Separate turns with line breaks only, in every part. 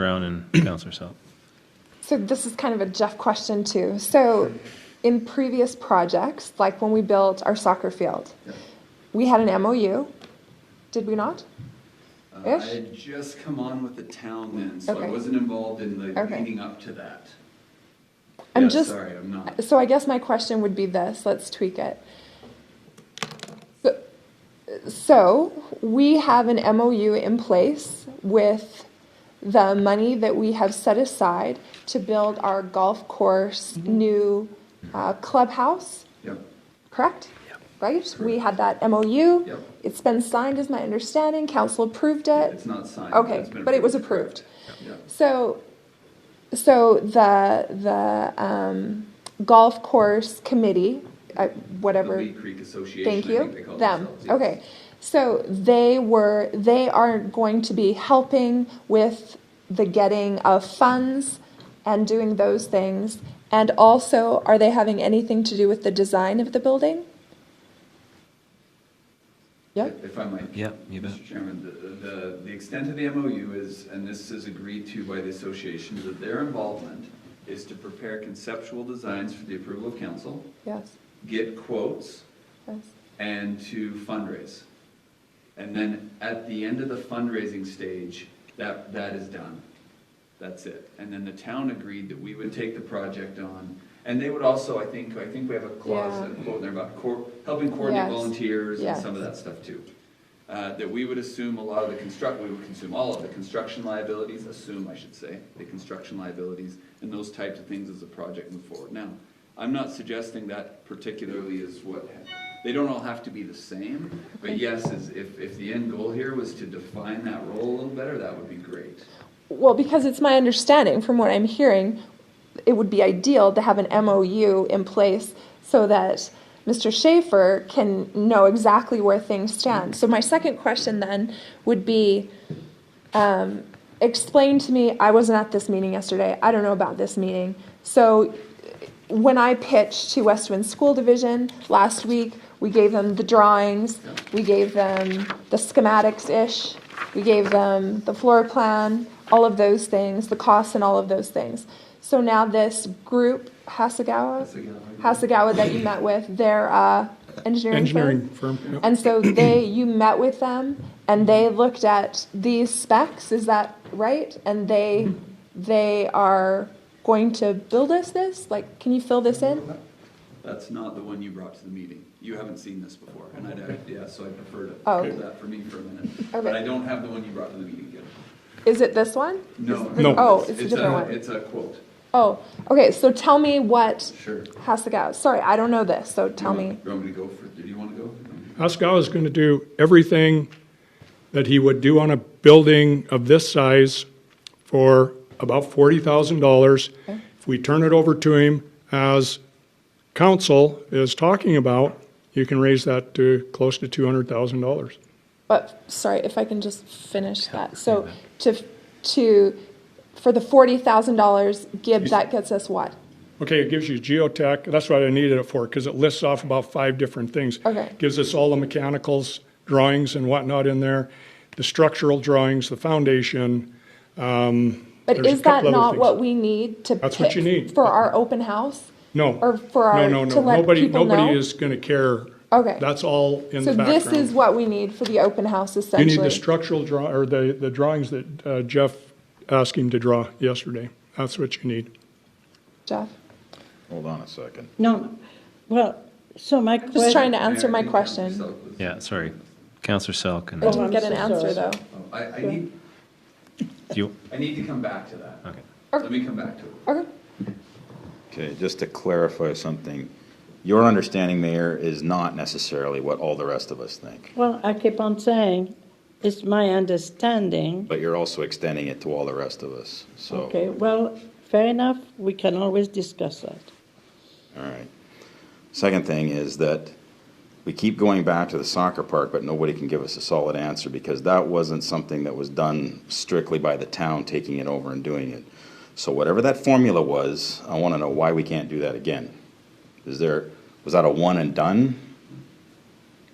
Brown and Counselor Selk.
So this is kind of a Jeff question too. So in previous projects, like when we built our soccer field, we had an MOU, did we not?
Uh, I
Ish?
had just come on with the town then, so I
Okay.
wasn't involved in the
Okay.
leading up to that.
I'm
Yeah,
just-
Sorry, I'm not.
So I guess my question would be this, let's tweak it. So we have an MOU in place with the money that we have set aside to build our golf course new uh, clubhouse.
Yep,
correct? Right? We had that MOU.
Yep.
It's been signed, is my understanding. Council approved it.
it's not signed.
Okay,
it's been
but it was approved.
Yeah,
So, so the, the um, golf course committee, uh,
the
whatever.
Lee Creek Association, I
Thank
think they
you.
call
Them.
themselves. yes.
Okay. So they were, they are going to be helping with the getting of funds and doing those things. And also, are they having anything to do with the design of the building? Yep.
If I might.
Yeah, you bet.
Mr. Chairman, the, the, the extent of the MOU is, and this is agreed to by the association, that their involvement is to prepare conceptual designs for the approval of council,
Yes.
get quotes,
Yes.
and to fundraise. And then at the end of the fundraising stage, that, that is done. That's it. And then the town agreed that we would take the project on. And they would also, I think, I think we have a clause, a
Yeah.
quote in there about cor- helping coordinate
Yes.
volunteers and
Yes.
some of that stuff too. Uh, That we would assume a lot of the construct, we would consume all of the construction liabilities, assume, I should say, the construction liabilities and those types of things as the project move forward. Now, I'm not suggesting that particularly is what, they don't all have to be the same, but yes, is if, if the end goal here was to define that role a little better, that would be great.
Well, because it's my understanding from what I'm hearing, it would be ideal to have an MOU in place so that Mr. Schaefer can know exactly where things stand. So my second question then would be, um, explain to me, I wasn't at this meeting yesterday, I don't know about this meeting. So when I pitched to Westwind School Division last week, we gave them the drawings, we gave them the schematics-ish, we gave them the floor plan, all of those things, the costs and all of those things. So now this group, Hasagawa? Hasagawa that you met with, their uh, engineering firm?
Engineering firm, yep.
And so they, you met with them and they looked at these specs, is that right? And they, they are going to build us this? Like, can you fill this in?
That's not the one you brought to the meeting. You haven't seen this before, and I'd, act- yeah, so I prefer to
Oh,
hold
okay.
that for me for a minute.
Okay.
But I don't have the one you brought to the meeting yet.
Is it this one?
No.
No.
Oh, it's a different one.
It's uh, a quote.
Oh, okay, so tell me what
Sure. Mm-hmm.
has to go. Sorry, I don't know this, so tell
You
me.
want- You want me to go for, do you want to go?
Pascal is going to do everything that he would do on a building of this size for about $40,000. If we turn it over to him as council is talking about, you can raise that to close to $200,000.
But, sorry, if I can just finish that. So to, to, for the forty thousand dollars, Gibb, that gets us what?
Okay, it gives you geotech, that's what I needed it for, because it lists off about five different things.
Okay.
Gives us all the mechanicals, drawings and whatnot in there, the structural drawings, the foundation.
But
There's a
is that
couple other
not
things.
what we need to
That's what you
pick
need.
for our open house?
No.
Or for our,
No, no,
to
no,
let
nobody,
people know?
nobody is going to care.
Okay.
That's all in
So
the
this
background.
is what we need for the open house
You
essentially?
need the structural draw, or the, the drawings that uh, Jeff asked him to draw yesterday. That's what you need.
Jeff,
Hold on a second.
No, well, so my question.
just trying to answer
Mayor,
my
I think Councilor
question.
Selk was-
Yeah, sorry, Counselor Selk and,
Oh,
do
I'm
Get an
so
answer
sorry.
though.
Oh, I, I need,
you,
I need to come back to that.
okay.
Let me come back to it.
Okay,
Okay, just to clarify something, your understanding, Mayor, is not necessarily what all the rest of us think,
Well, I keep on saying, it's my understanding.
but you're also extending it to all the rest of us, so.
Okay, well, fair enough, we can always discuss that.
All right. Second thing is that we keep going back to the soccer park, but nobody can give us a solid answer because that wasn't something that was done strictly by the town taking it over and doing it. So whatever that formula was, I want to know why we can't do that again. Is there, was that a one and done?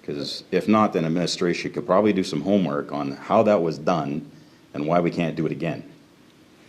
Because if not, then administration could probably do some homework on how that was done and why we can't do it again.